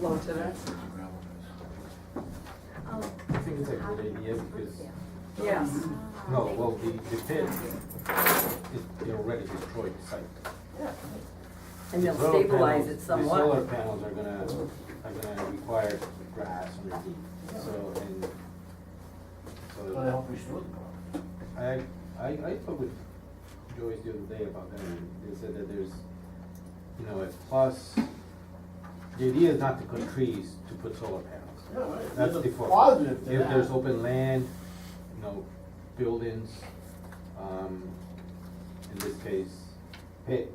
to that? I think it's a good idea because, Yes. no, well, the, the pit is they already destroyed the site. And they'll The solar stabilize panels- it The solar somewhat. panels are gonna, are gonna require grass underneath, so, and, Well, I so, hope we should. I, I, I spoke with Joyce the other day about that, and they said that there's, you know, a plus, the idea is not to cut trees to put solar panels. Yeah, right. That's There's a the focus. Positive to If there's that. open land, you know, buildings, um, in this case, pit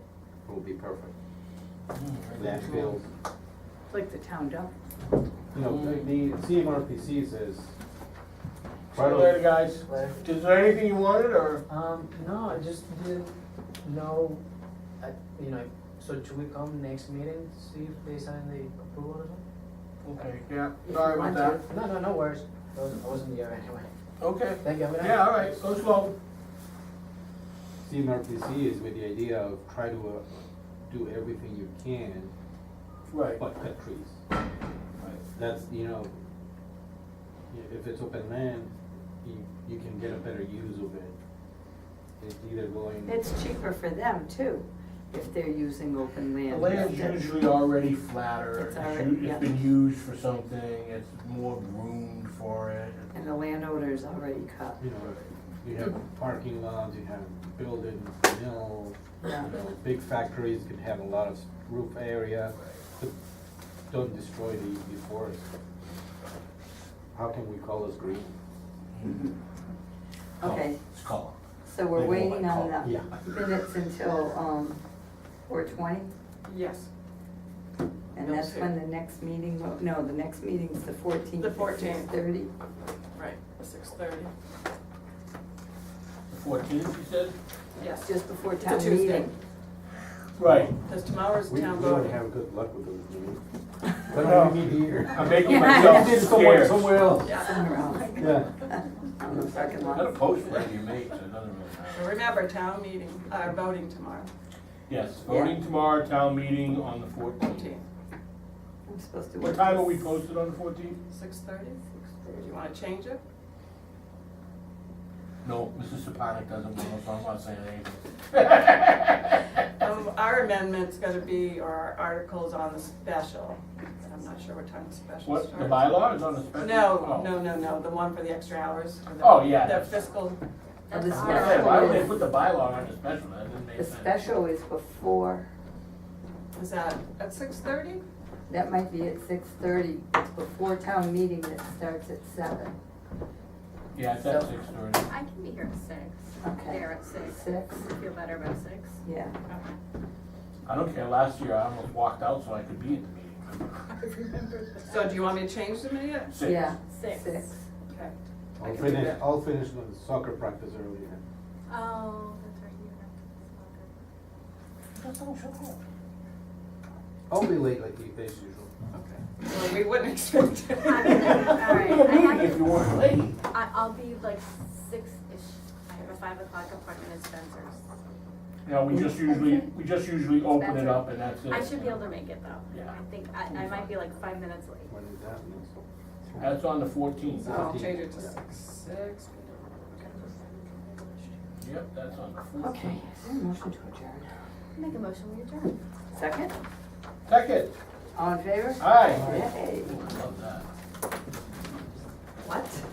will be perfect. Hmm, Landfills, Like the town dump. you know, the hmm. the CMRPC says. See you later, guys. Is there anything you wanted, or? Um, no, I just didn't know, I, you know, so should we come next meeting, to see if they sign the approval or something? Okay, yeah, If you sorry about want that. No, no, no worries, I wasn't, I wasn't there anyway, Okay, thank you, have a nice- yeah, all right, go slow. CMRPC is with the idea of try to uh, do everything you can, Right. but cut trees. That's, you know, i- if it's open land, you, you can get a better use of it. It's either going. It's cheaper for them too, if they're using open The land. land's usually already flatter. It's It's already- u- yeah. It's been used for something, it's more groomed for it. And the landowner's already cut. you know, you have parking lots, you have buildings, mill, you Yeah. know, big factories can have a lot of roof area, but don't destroy the, the forest. How can we call this green? Okay, It's called. so we're Oh. They won't waiting like on call- the minutes until, um, four twenty? Yes, And No, that's sir. when the next meeting, will- no, the next meeting's the fourteenth. The 14th. Six thirty. right, six thirty, Fourteenth, you said? yes, Just before It's a town Tuesday. meeting. Right. because tomorrow's We we town don't voting. have good luck with those green. Why don't we meet here? I'm making Yeah. myself It's somewhere, scarce. somewhere else, Yeah. Somewhere else. yeah. On the parking lot. Gotta post whatever you make, so it doesn't really matter. And remember, town meeting, uh, voting tomorrow, Yes, voting tomorrow, town meeting on the fourteenth. fourteen, I'm supposed to. What time are we posted on the fourteenth? six thirty? Do you wanna change it? No, Mrs. Saponic doesn't want, so I'm not saying anything. Um, our amendment's gonna be, or our article's on the special, I'm not sure what time the special starts. What, the bylaw is on the special? No, Oh. no, no, no, the one for the extra hours. for the- Oh, yeah, The that's- fiscal, Oh, The I said, why would they special put is, the bylaw on the special, that didn't make the sense. special is before, is that at six thirty? that might be at six thirty, it's before town meeting that starts at seven. Yeah, it's at six thirty. I can be here at six. Okay. There at six. Six, Does it feel better about six? yeah. I don't care, last year I almost walked out so I could be at the meeting. I remembered that. So do you want me to change the minute? Six. Yeah, Six. six. Okay. I I'll can do finish, that. I'll finish with soccer practice early then. Oh, that's right, you have I'll be late like you, as usual. Okay. Well, we wouldn't expect it. I mean, uh, all right, I have If you weren't late. to- I, I'll be like six-ish. I have a five o'clock appointment at Spencer's. No, we just usually, we just usually open it up and that's it. I should be able to make it though. Yeah. I think, I, I might be like five minutes late. When is that next? That's on the fourteenth. So I'll change it to six, six. Yep, that's on the fourteenth. Okay, is there a motion to adjourn? Make a motion, we adjourn. Second, Second, all in favor? aye. Yay. Love that.